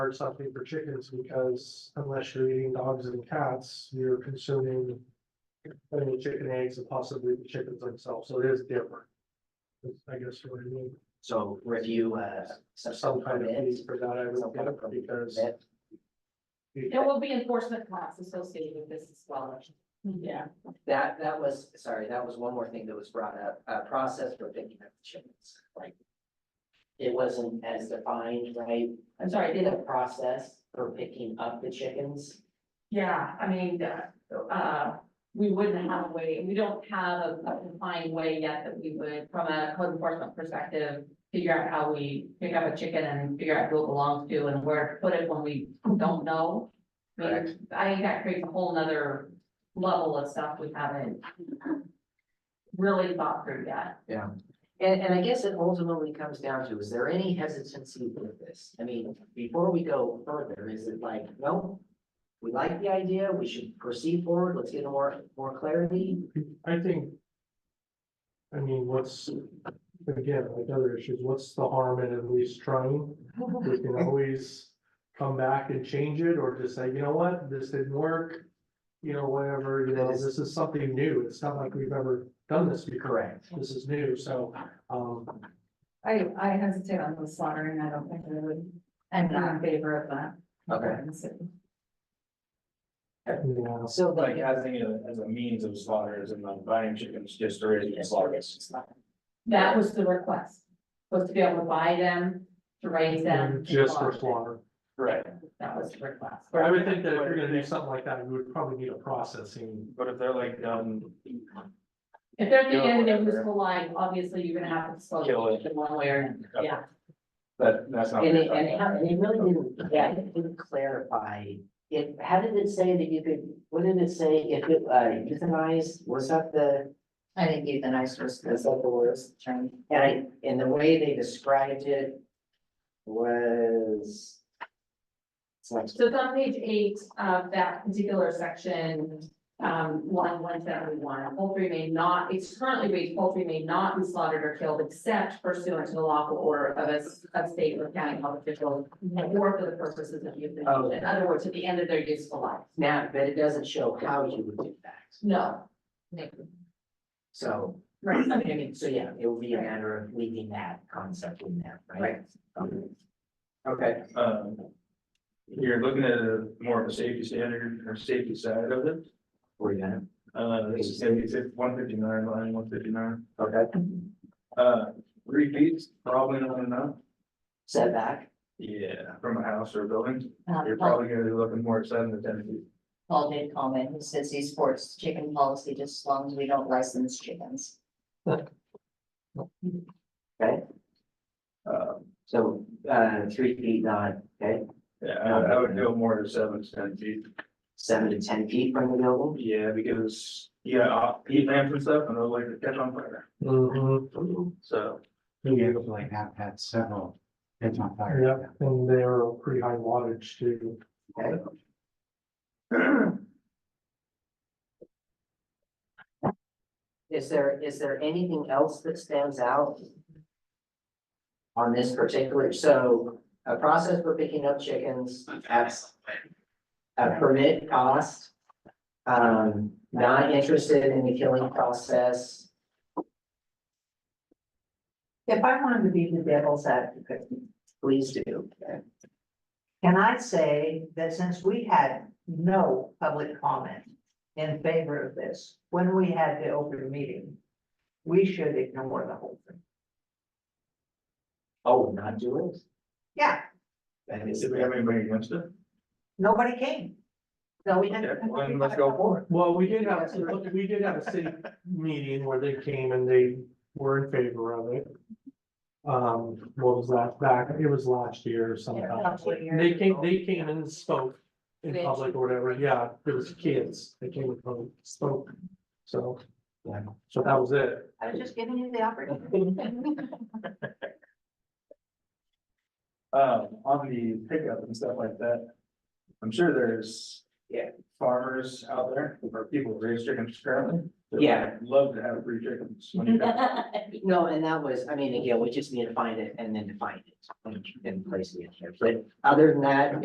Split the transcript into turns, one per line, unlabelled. hard something for chickens because unless you're eating dogs and cats, you're consuming. Only chicken eggs and possibly the chickens themselves, so it is different. That's, I guess what I mean,
So review, uh,
So some
some,
kind of
permit,
fees for that, I
some
would get
kind of
it because.
permit.
There will be enforcement costs associated with this as well. Yeah.
That, that was, sorry, that was one more thing that was brought up, uh, process for picking up chickens, like. It wasn't as defined, right?
I'm sorry, did
The
it-
process for picking up the chickens.
Yeah, I mean, uh, uh, we wouldn't have a way, we don't have a a defined way yet that we would, from a code enforcement perspective, figure out how we pick up a chicken and figure out who it belongs to and where to put it when we don't know. I mean, I think that creates a whole nother level of stuff we haven't really thought through yet.
And, and I guess it ultimately comes down to, is there any hesitancy with this? I mean, before we go further, is it like, no? We like the idea, we should proceed forward, let's get more, more clarity,
I think. I mean, what's, again, like other issues, what's the harm in at least trying? We can always come back and change it or just say, you know what, this didn't work. You know, whatever, you know, this is something new. It's not like we've ever done this before.
correct?
This is new, so, um,
I, I hesitate on the slaughtering, I don't think I would, I'm not in favor of that.
Okay.
you know,
So
Like,
like,
as a, as a means of slaughter, as in like buying chickens just to raise and slaughter.
That was the request, was to be able to buy them, to raise them. and
Mm, just for
them.
slaughter.
Right,
That was the request.
But I would think that if you're gonna do something like that, you would probably need a processing.
but if they're like um, done,
If there's the
Yeah,
end of
whatever.
this whole line, obviously you're gonna have to slow
Kill it.
in one way or another,
Okay.
yeah.
that, that's not.
and it, and it ha- and it really didn't, yeah, it didn't clarify. It, how did it say that you could, what did it say if it, uh, euthanized, was that the,
I think euthanize was
was that the worst?
term.
And I, and the way they described it was. It's like,
So it's on page eight of that particular section, um, line one seventy-one, poultry may not, it's currently raised poultry may not be slaughtered or killed except pursuant to the lawful order of a, s- of state or county health official or for the purposes of euthanasia, in other words, at the end of their useful life,
now, but it doesn't show how you would do that,
no.
so,
Right,
I mean, I mean, so yeah, it would be a matter of leaving that concept in there, right? Um, Okay.
Um, you're looking at a more of a safety standard or safety side of it,
Were you gonna,
uh, this is one fifty-nine, line one fifty-nine.
okay,
Uh, three feet, probably not enough,
setback,
yeah, from a house or a building, you're probably gonna be looking more at seven to ten feet.
Um, Paul did comment, he says he supports chicken policy just as long as we don't license chickens.
Uh,
so, uh, three feet, not, okay,
yeah, I, I would go more to seven to ten feet.
seven to ten feet from the building.
Yeah, because, yeah, uh, heat lamps and stuff, and those like to catch on fire,
Mhm.
so.
Yeah, like that, had several, it's on fire.
Yep, and they're pretty high wattage too.
Is there, is there anything else that stands out? On this particular, so a process for picking up chickens, that's. A permit cost. Um, not interested in the killing process.
If I wanted to be the devil's advocate,
Please do.
can I say that since we had no public comment in favor of this, when we had the open meeting, we should ignore the whole thing?
Oh, not do it.
Yeah,
That is-
Did we have anybody against it?
nobody came. So we didn't.
Okay, well, then let's go for
Well, we did have, we did have a city meeting where they came and they were in favor of it. Um, what was that back? It was last year or
Yeah,
sometime.
couple of years
They came,
ago.
they came and spoke in
They-
public or whatever. Yeah, it was kids. They came and public spoke. So, yeah, so that was it.
I was just giving you the opportunity.
Um, on the pickup and stuff like that, I'm sure there's farmers out there, or people who raise chickens currently. they would
Yeah.
Love to have free chickens. when you got-
No, and that was, I mean, again, we just need to find it and then define it and- and place it in there. But other than that,